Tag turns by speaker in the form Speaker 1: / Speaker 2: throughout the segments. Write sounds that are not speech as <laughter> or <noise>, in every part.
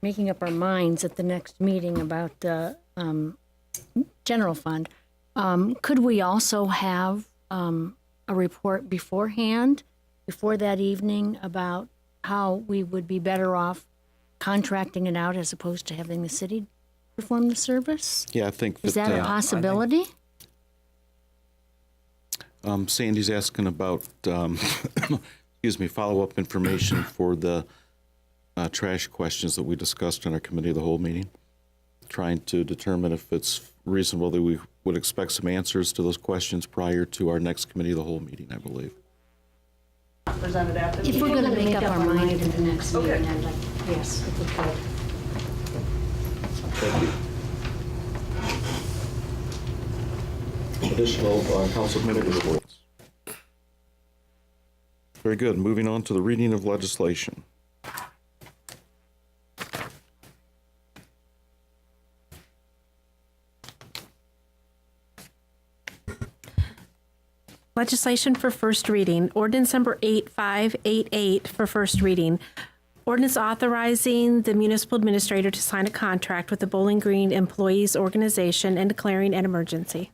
Speaker 1: making up our minds at the next meeting about the um, general fund, um, could we also have um, a report beforehand, before that evening, about how we would be better off contracting it out as opposed to having the city perform the service?
Speaker 2: Yeah, I think
Speaker 1: Is that a
Speaker 2: that uh,
Speaker 1: possibility?
Speaker 2: um, Sandy's asking about, um, <coughs> excuse me, follow-up information for the uh, trash questions that we discussed in our committee of the whole meeting, trying to determine if it's reasonable that we would expect some answers to those questions prior to our next committee of the whole meeting, I believe.
Speaker 3: presented after the
Speaker 1: If we're
Speaker 3: meeting.
Speaker 1: going to make up our mind at the next
Speaker 3: Okay.
Speaker 1: meeting, I'd like, yes, if we could.
Speaker 4: Thank you. Additional uh, council committee reports.
Speaker 2: Very good. Moving on to the reading of legislation.
Speaker 5: Legislation for first reading, ordinance number 8588 for first reading. Ordinance authorizing the municipal administrator to sign a contract with the Bowling Green Employees Organization and declaring an emergency.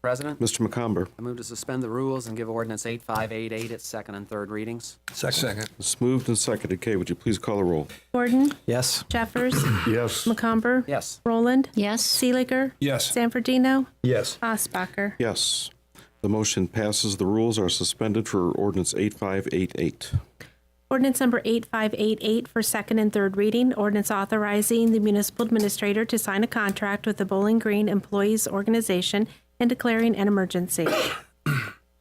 Speaker 6: President,
Speaker 2: Mr. McComber,
Speaker 6: I move to suspend the rules and give ordinance 8588 its second and third readings.
Speaker 7: Second.
Speaker 2: it's moved and seconded. Kay, would you please call a roll?
Speaker 5: Gordon.
Speaker 7: Yes.
Speaker 5: Jeffers.
Speaker 7: Yes.
Speaker 5: McComber.
Speaker 6: Yes.
Speaker 5: Roland.
Speaker 1: Yes,
Speaker 5: Seeliger.
Speaker 7: Yes.
Speaker 5: Zanfordino.
Speaker 7: Yes.
Speaker 5: Osbacher.
Speaker 2: Yes. The motion passes. The rules are suspended for ordinance 8588.
Speaker 5: Ordinance number 8588 for second and third reading. Ordinance authorizing the municipal administrator to sign a contract with the Bowling Green Employees Organization and declaring an emergency.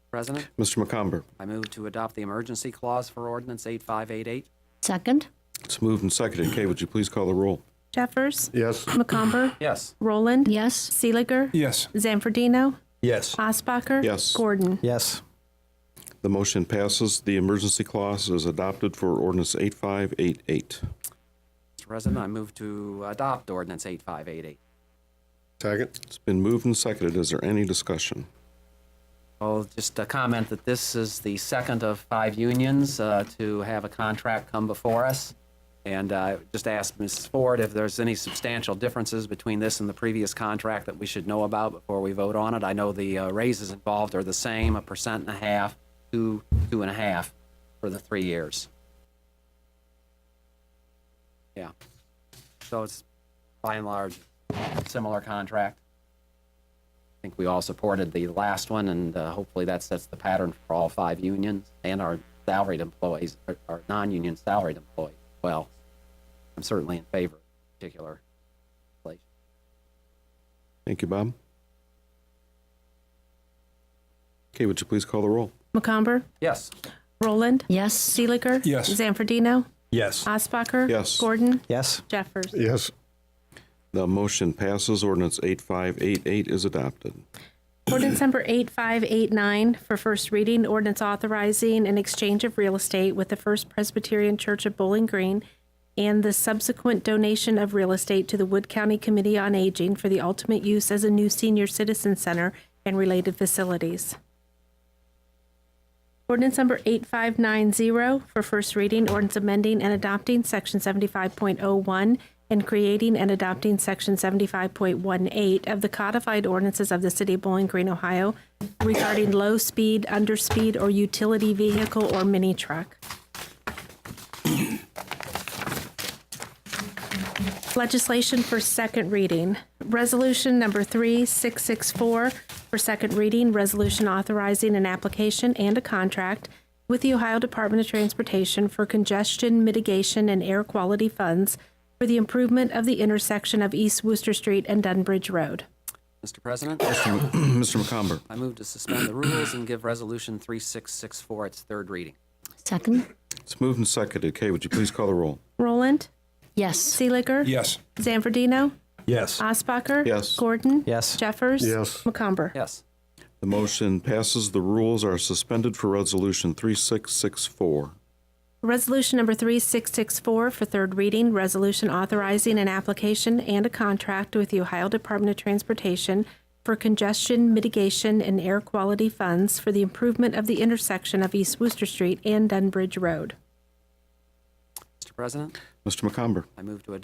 Speaker 6: President,
Speaker 2: Mr. McComber,
Speaker 6: I move to adopt the emergency clause for ordinance 8588.
Speaker 1: second?
Speaker 2: it's moved and seconded. Kay, would you please call the roll?
Speaker 5: Jeffers.
Speaker 7: Yes.
Speaker 5: McComber.
Speaker 6: Yes.
Speaker 5: Roland.
Speaker 1: Yes,
Speaker 5: Seeliger.
Speaker 7: Yes.
Speaker 5: Zamfordino.
Speaker 7: Yes.
Speaker 5: Osbacher.
Speaker 2: Yes.
Speaker 5: Gordon.
Speaker 7: Yes.
Speaker 2: The motion passes. The emergency clause is adopted for ordinance 8588.
Speaker 6: Mr. President, I move to adopt ordinance 8588.
Speaker 7: Second.
Speaker 2: It's been moved and seconded. Is there any discussion?
Speaker 6: Well, just a comment that this is the second of five unions uh, to have a contract come before us. And uh, just ask Mrs. Ford if there's any substantial differences between this and the previous contract that we should know about before we vote on it. I know the uh, raises involved are the same, a percent and a half, two, two and a half for the three years. Yeah. So it's by and large similar contract. I think we all supported the last one, and uh, hopefully that sets the pattern for all five unions and our salaried employees, our- our non-union salaried employees as well. I'm certainly in favor of this particular legislation.
Speaker 2: Thank you, Bob. Kay, would you please call the roll?
Speaker 5: McComber.
Speaker 6: Yes.
Speaker 5: Roland.
Speaker 1: yes,
Speaker 5: Seeliger.
Speaker 7: Yes.
Speaker 5: Zanfordino.
Speaker 7: Yes.
Speaker 5: Osbacher.
Speaker 2: Yes.
Speaker 5: Gordon.
Speaker 7: Yes.
Speaker 5: Jeffers.
Speaker 7: Yes.
Speaker 2: The motion passes. Ordinance 8588 is <clears throat> adopted.
Speaker 5: Ordinance number 8589 for first reading, ordinance authorizing an exchange of real estate with the First Presbyterian Church of Bowling Green and the subsequent donation of real estate to the Wood County Committee on Aging for the ultimate use as a new senior citizen center and related facilities. Ordinance number 8590 for first reading, ordinance amending and adopting section 75.01 and creating and adopting section 75.18 of the codified ordinances of the city of Bowling Green, Ohio regarding low-speed, underspeed, or utility vehicle or mini truck. Legislation for second reading. Resolution number 3664 for second reading, resolution authorizing an application and a contract with the Ohio Department of Transportation for congestion mitigation and air quality funds for the improvement of the intersection of East Worcester Street and Dunbridge Road.
Speaker 6: Mr. President,
Speaker 2: Mr. McComber,
Speaker 6: I move to suspend the rules and give Resolution 3664 its third reading.
Speaker 1: second?
Speaker 2: it's moved and seconded. Kay, would you please call the roll?
Speaker 5: Roland,
Speaker 1: Yes.
Speaker 5: Seeliger,
Speaker 7: Yes.
Speaker 5: Zanfordino,
Speaker 7: Yes.
Speaker 5: Osbacher,
Speaker 2: Yes.
Speaker 5: Gordon,
Speaker 7: Yes.
Speaker 5: Jeffers,
Speaker 7: Yes.
Speaker 5: McComber.
Speaker 6: Yes.
Speaker 2: The motion passes. The rules are suspended for resolution 3664.
Speaker 5: Resolution number 3664 for third reading, resolution authorizing an application and a contract with the Ohio Department of Transportation for congestion mitigation and air quality funds for the improvement of the intersection of East Worcester Street and Dunbridge Road.
Speaker 6: Mr. President,
Speaker 2: Mr. McComber.
Speaker 6: I move to adopt